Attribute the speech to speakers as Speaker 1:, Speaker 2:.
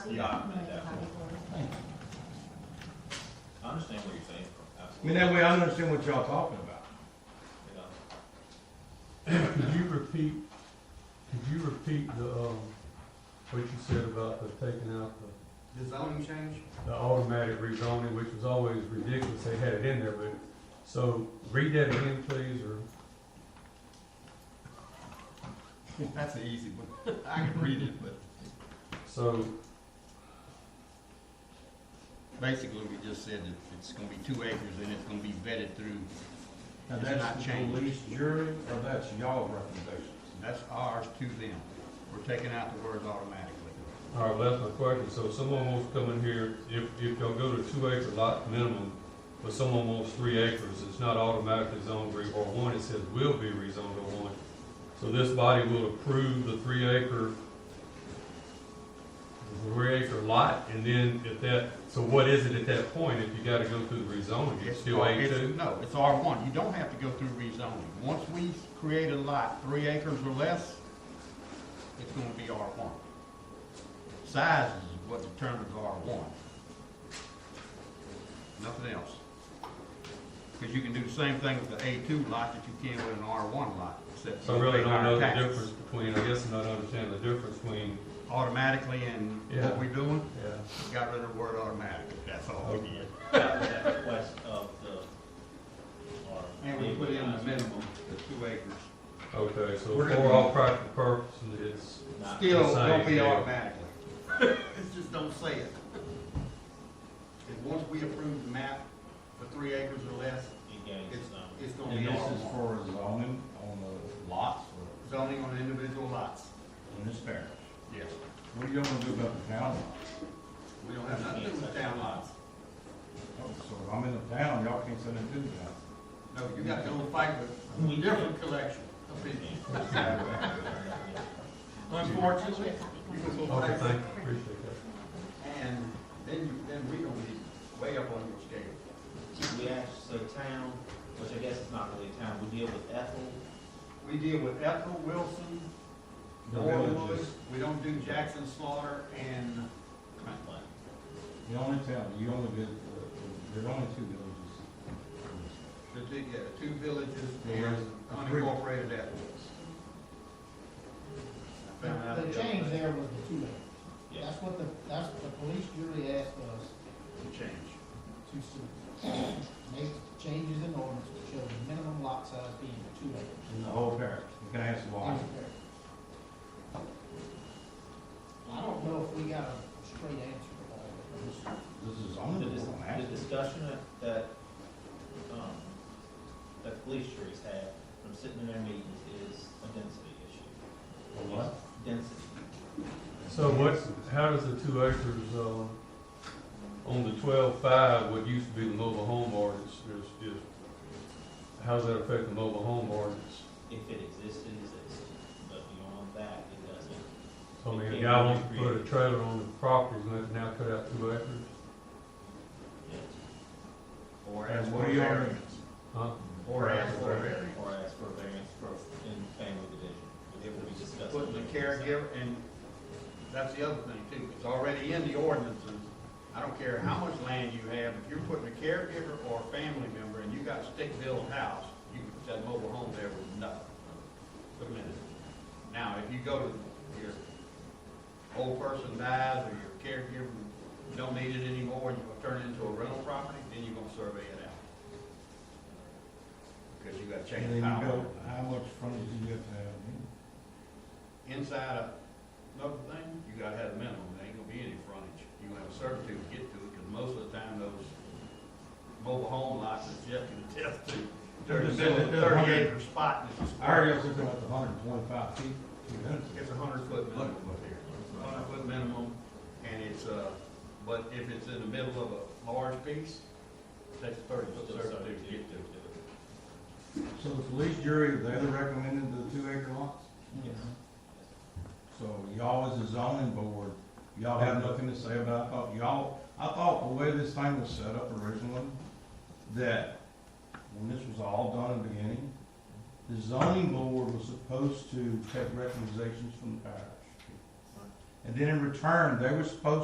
Speaker 1: Yeah, I understand where you're saying from,
Speaker 2: I mean,
Speaker 1: absolutely,
Speaker 2: that way I understand what y'all talking about.
Speaker 1: you know.
Speaker 3: Could you repeat, could you repeat the, um, what you said about the taking out the,
Speaker 4: The zoning change?
Speaker 3: the automatic rezoning, which was always ridiculous, they had it in there, but, so, read that again, please, or,
Speaker 4: That's an easy one. I can read it, but
Speaker 3: so,
Speaker 4: basically we just said that it's gonna be two acres and it's gonna be vetted through.
Speaker 2: Now,
Speaker 4: It's not
Speaker 2: that's the
Speaker 4: changed.
Speaker 2: police jury, or that's y'all recommendations?
Speaker 4: That's ours to them. We're taking out the words automatically.
Speaker 3: all right, well, that's my question, so if someone wants to come in here, if, if y'all go to two acre lot minimum, but someone wants three acres, it's not automatically zoned re, or one, it says will be rezoned to one. So this body will approve the three acre, the three acre lot, and then if that, so what is it at that point if you gotta go through the rezoning? It's still A
Speaker 4: it's-
Speaker 3: two?
Speaker 4: No, it's R one. You don't have to go through rezoning. Once we create a lot, three acres or less, it's gonna be R one. Size is what determines R one. Nothing else. Because you can do the same thing with the A two lot that you can with an R one lot, except.
Speaker 3: So I
Speaker 4: you
Speaker 3: really
Speaker 4: pay
Speaker 3: don't
Speaker 4: higher
Speaker 3: know the
Speaker 4: taxes.
Speaker 3: difference between, I guess I don't understand the difference between,
Speaker 4: Automatically and
Speaker 3: Yeah.
Speaker 4: what we doing,
Speaker 3: yeah.
Speaker 4: we got rid of the word automatically. That's all we did.
Speaker 1: That was at the request of the, or.
Speaker 4: minimum, the two acres.
Speaker 3: Okay, so
Speaker 4: We're gonna-
Speaker 3: for all practical purposes, it's
Speaker 1: Not-
Speaker 4: Still,
Speaker 3: Same
Speaker 4: don't be
Speaker 3: deal.
Speaker 4: automatically. It's just don't say it. And once we approve the map for three acres or less,
Speaker 1: It gains,
Speaker 4: it's,
Speaker 1: um,
Speaker 4: it's gonna
Speaker 5: And
Speaker 4: be
Speaker 5: this
Speaker 4: R
Speaker 5: is
Speaker 4: one.
Speaker 5: for zoning on the lots or
Speaker 4: Zoning on individual lots.
Speaker 5: in this parish.
Speaker 4: Yes.
Speaker 5: What are y'all gonna do about the town lots?
Speaker 4: We don't have nothing to do with town lots.
Speaker 5: Oh, So if I'm in the town, y'all can't send it to me.
Speaker 4: No, you got to go fight with a different collection of people. Unfortunately, you can go
Speaker 3: Okay,
Speaker 4: fight
Speaker 3: thank you, appreciate that.
Speaker 4: And then you, then we gonna be way up on your scale.
Speaker 1: We actually, so town, which I guess is not really a town, we deal with Ethel,
Speaker 4: We deal with Ethel Wilson,
Speaker 5: The
Speaker 4: Norwood,
Speaker 5: villages.
Speaker 4: we don't do Jackson Slaughter and
Speaker 1: Franklin.
Speaker 5: The only town, you only did, uh, there's only two villages.
Speaker 4: the two, yeah, the two villages
Speaker 5: Yeah.
Speaker 4: and unincorporated Ethel. I found out
Speaker 6: The
Speaker 4: other
Speaker 6: change
Speaker 4: day.
Speaker 6: there was the two acre.
Speaker 1: Yeah.
Speaker 6: That's what the, that's what the police jury asked us
Speaker 4: The change.
Speaker 6: to s- make changes in ordinance to show the minimum lot size being two acres.
Speaker 5: In the whole parish. You can ask why.
Speaker 6: I don't know if we got a straight answer to all of this.
Speaker 5: This is zoning.
Speaker 1: The
Speaker 5: board,
Speaker 1: dis-
Speaker 5: I'm
Speaker 1: The
Speaker 5: asking.
Speaker 1: discussion that- that, um, that the police juries had from sitting in their meetings is a density issue.
Speaker 5: For what?
Speaker 1: Density.
Speaker 3: So what's, how does the two acres, um, on the twelve-five, what used to be the mobile home ordinance, is, is, how does that affect the mobile home ordinance?
Speaker 1: If it existed, it existed, but beyond that, it doesn't.
Speaker 3: So, I mean, a guy wants to put a trailer on the property, and that now cut out two acres,
Speaker 4: Or
Speaker 5: And
Speaker 4: as
Speaker 5: what
Speaker 4: for
Speaker 5: are y'all-
Speaker 4: variance.
Speaker 3: huh?
Speaker 4: Or as for variance.
Speaker 1: Or ask for a variance for, in family division, but it will be discussed.
Speaker 4: Putting the caregiver, and that's the other thing too, it's already in the ordinances. I don't care how much land you have, if you're putting a caregiver or a family member and you got a stick-built house, you can put that mobile home there with nothing. Put 'em in it. Now, if you go to, your old person dies or your caregiver don't need it anymore and you will turn it into a rental property, then you're gonna survey it out. Because you gotta
Speaker 5: And
Speaker 4: change the
Speaker 5: then you
Speaker 4: power.
Speaker 5: go, how much frontage do you have to have?
Speaker 4: inside a, another thing, you gotta have a minimum, there ain't gonna be any frontage. You gonna have a certitude to get to it, because most of the time those mobile home lots that Jeff can attest to, they're in the middle of a thirty acre spot, and it's a
Speaker 5: I
Speaker 4: square.
Speaker 5: already was looking at the hundred and twenty-five feet. two hundred.
Speaker 4: It's a hundred foot minimum up here, hundred foot minimum, and it's, uh, but if it's in the middle of a large piece, that's thirty foot certitude to get to.
Speaker 5: So the police jury, they recommended the two acre lots?
Speaker 1: Yes.
Speaker 5: So y'all as a zoning board, y'all have nothing to say about, it? I thought y'all, I thought the way this thing was set up originally, that when this was all done in the beginning, the zoning board was supposed to take recommendations from the parish. And then in return, they were supposed